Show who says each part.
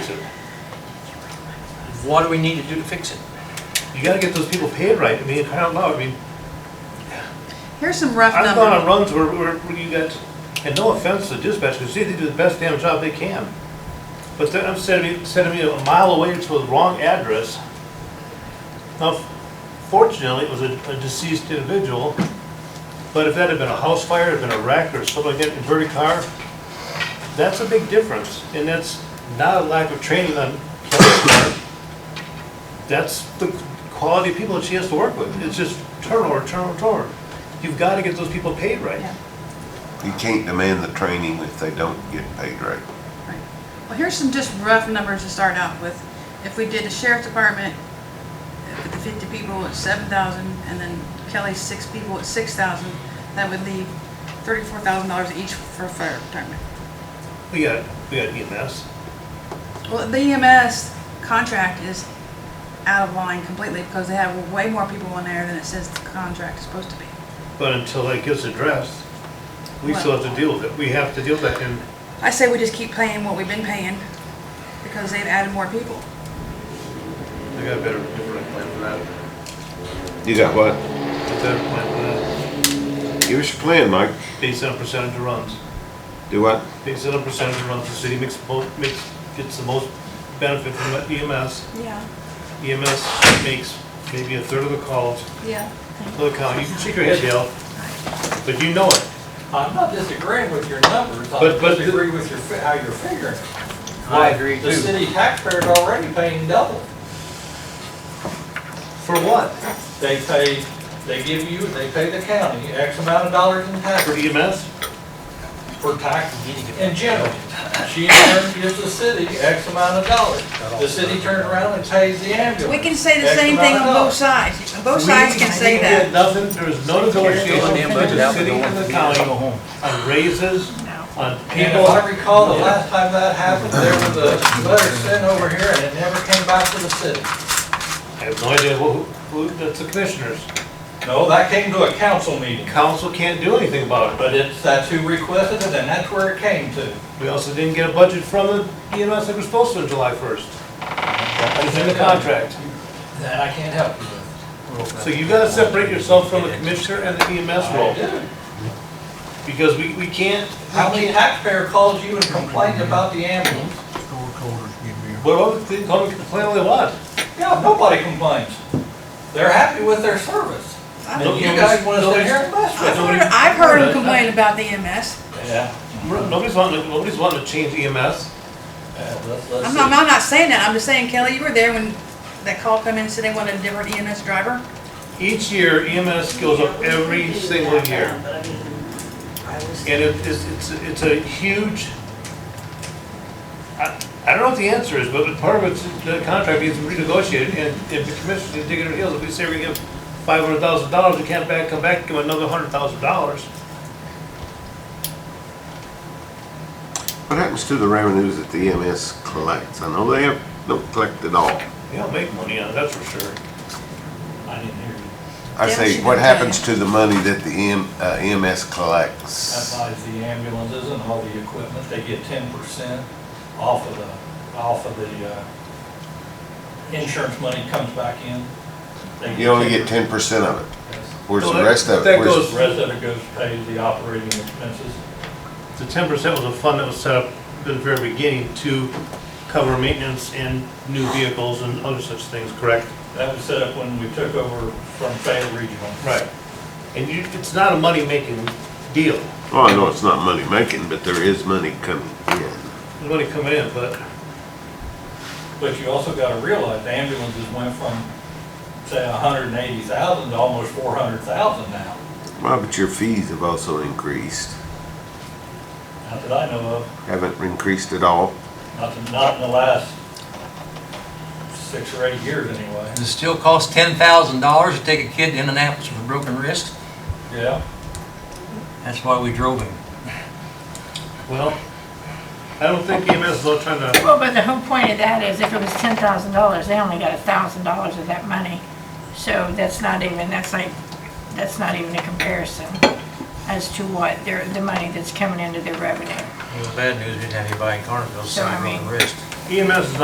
Speaker 1: to.
Speaker 2: What do we need to do to fix it?
Speaker 1: You gotta get those people paid right, I mean, I don't know, I mean,
Speaker 3: Here's some rough
Speaker 1: I've gone on
Speaker 3: numbers.
Speaker 1: runs where, where where you got, and no offense to dispatchers, see, they do the best damn job they can. But then I'm sending me, sending me a mile away to the wrong address. Now, fortunately, it was a a deceased individual, but if that had been a house fire, had been a wreck, or somebody getting inverted car, that's a big difference, and that's not a lack of training on Kelly's part. That's the quality of people that she has to work with, it's just turnover, turnover, turnover. You've gotta get those people paid right.
Speaker 3: Yeah.
Speaker 4: You can't demand the training if they don't get paid right.
Speaker 3: Right. Well, here's some just rough numbers to start out with. If we did the sheriff's department, uh, with the fifty people at seven thousand, and then Kelly's six people at six thousand, that would leave thirty-four thousand dollars each for fire department.
Speaker 1: We got, we got E EMS.
Speaker 3: Well, the EMS contract is out of line completely because they have way more people in there than it says the contract is supposed to be.
Speaker 1: But until that gets addressed, we still have to deal with it. We have to deal with that, and
Speaker 3: I say we just keep paying what we've been paying because they've added more people.
Speaker 1: I got a better, different plan for that.
Speaker 4: You got what?
Speaker 1: A better plan
Speaker 4: Give us your plan, Mike.
Speaker 1: for that, based on percentage of runs.
Speaker 4: Do what?
Speaker 1: Based on percentage of runs, the city makes, mo- makes, gets the most benefit from E that EMS.
Speaker 3: Yeah,
Speaker 1: EMS E makes maybe a third of the calls
Speaker 3: yeah.
Speaker 1: to the county. You can shake your head, Dale, but you know it.
Speaker 5: I'm not disagreeing with your numbers, I
Speaker 1: But- but-
Speaker 5: disagree with your, fi- how you're figuring.
Speaker 2: I agree
Speaker 5: The
Speaker 2: too.
Speaker 5: city taxpayer's already paying double.
Speaker 1: For what?
Speaker 5: They pay, they give you, they pay the county X amount of dollars in
Speaker 1: For E
Speaker 5: taxes,
Speaker 1: EMS?
Speaker 5: for tax in general. She in turn gives the city X amount of dollars. The city turns around and pays the
Speaker 3: We
Speaker 5: ambulance.
Speaker 3: can say the
Speaker 5: X
Speaker 3: same thing
Speaker 5: amount
Speaker 3: on
Speaker 5: of
Speaker 3: both
Speaker 5: dollars.
Speaker 3: sides. Both sides can say
Speaker 1: We
Speaker 3: that.
Speaker 1: did nothing, there was no negotiation between the city and the county on raises, on
Speaker 5: And
Speaker 1: people.
Speaker 5: if I recall, the last time that happened, there was a letter sent over here and it never came back to the city.
Speaker 1: I have no idea who, who, that's the commissioners.
Speaker 5: No, that came to a council meeting.
Speaker 1: Council can't do anything about it.
Speaker 5: But it's, that's who requested it, and that's where it came to.
Speaker 1: We also didn't get a budget from the EMS that we're supposed to on July 1st. It's in the contract.
Speaker 5: That I can't help you with.
Speaker 1: So you gotta separate yourself from the commissioner and the EMS
Speaker 5: I
Speaker 1: role,
Speaker 5: do.
Speaker 1: because we, we can't,
Speaker 5: How many taxpayer calls you and complains about the ambulance?
Speaker 1: well, they call me complain all they want.
Speaker 5: Yeah, nobody complains. They're happy with their service. And
Speaker 1: Don't
Speaker 5: you
Speaker 1: you
Speaker 5: guys
Speaker 1: just-
Speaker 5: wanna
Speaker 1: don't
Speaker 5: sit
Speaker 1: you-
Speaker 5: here and mess
Speaker 3: I've
Speaker 5: with
Speaker 3: heard, I've heard them complain about the E EMS.
Speaker 5: it. Yeah.
Speaker 1: Nobody's wanting, to- nobody's wanting to change E EMS.
Speaker 5: Yeah, let's, let's
Speaker 3: I'm
Speaker 5: see.
Speaker 3: not, I'm not saying that, I'm just saying, Kelly, you were there when that call come in and said they wanted a different EMS driver.
Speaker 1: Each year EMS goes up every single year. And it- it's, it's, it's a huge, I, I don't know what the answer is, but part of it's, the contract needs to be renegotiated, and if the commissioners are digging their heels, if we say we're gonna give five hundred thousand dollars, we can't back, come back, and give another hundred thousand dollars.
Speaker 4: What happens to the revenues that the EMS collects? I know they have, don't collect at all.
Speaker 1: They don't make money on it, that's for sure.
Speaker 5: I didn't hear you.
Speaker 3: Yeah,
Speaker 4: I
Speaker 3: she
Speaker 4: say, what
Speaker 3: didn't tell
Speaker 4: happens to the money that the M- uh, EMS
Speaker 5: That
Speaker 4: collects?
Speaker 5: buys the ambulances and all the equipment, they get ten percent off of the, off of the, uh, insurance money comes back in. They
Speaker 4: You only get
Speaker 5: 10%.
Speaker 4: ten percent of it.
Speaker 5: Yes.
Speaker 4: Where's
Speaker 1: Well,
Speaker 4: the
Speaker 1: that-
Speaker 4: rest of
Speaker 1: that
Speaker 4: it? Where's-
Speaker 1: goes-
Speaker 5: The Rest of it goes to pay the operating expenses.
Speaker 1: The ten percent was a fund that was set up at the very beginning to cover maintenance and new vehicles and other such things, correct?
Speaker 5: That was set up when we took over from Fayette Regional.
Speaker 1: Right. And you, it's not a money-making deal,
Speaker 4: Oh, I know it's not money making, but there is money coming in.
Speaker 1: there's money coming in, but
Speaker 5: But you also gotta realize the ambulances went from, say, a hundred and eighty thousand to almost four hundred thousand now,
Speaker 4: Well, but your fees have also increased.
Speaker 5: not that I know of,
Speaker 4: Haven't increased at all.
Speaker 5: not, to- not in the last six or eight years anyway.
Speaker 2: Does it still cost ten thousand dollars to take a kid to Indianapolis with a broken wrist?
Speaker 5: Yeah,
Speaker 2: That's why we drove him.
Speaker 1: Well, I don't think EMS is all trying to,
Speaker 6: Well, but the whole point of that is if it was ten thousand dollars, they only got a thousand dollars of that money. So that's not even, that's like, that's not even a comparison as to what their, the money that's coming into their revenue.
Speaker 2: The bad news, we didn't have anybody in Carnville
Speaker 6: So, I
Speaker 2: sign on
Speaker 6: mean-
Speaker 2: the wrist.
Speaker 1: EMS E is